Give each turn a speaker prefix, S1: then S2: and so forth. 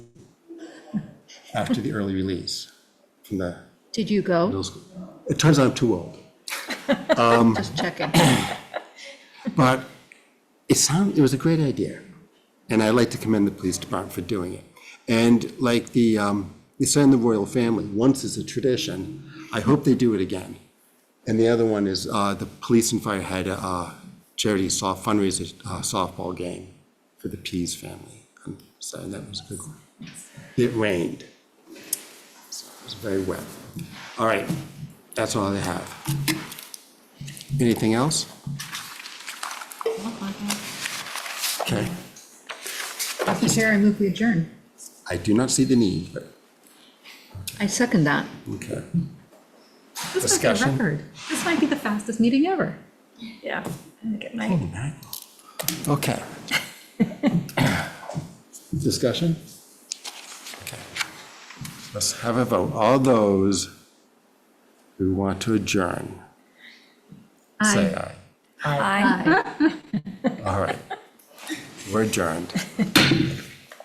S1: after the early release from the,
S2: Did you go?
S1: it turns out I'm too old.
S2: Just checking.
S1: But it sound, it was a great idea. And I'd like to commend the police department for doing it. And like the, um, they say in the royal family, once is a tradition, I hope they do it again. And the other one is, uh, the police and fire had a uh, charity soft fundraiser uh, softball game for the Pease family. And So that was a good one. It rained. So It was very wet. All right, that's all I have. Anything else? Okay.
S2: Mr. Chair, I move we adjourn.
S1: I do not see the need, but,
S2: I second that.
S1: okay.
S2: This might be a
S1: Discussion.
S2: record. This might be the fastest meeting ever.
S3: Yeah. I'm gonna get my-
S1: Okay. Discussion? Okay. Let's have a vote. All those who want to adjourn, say aye.
S3: Aye.
S1: All right. We're adjourned.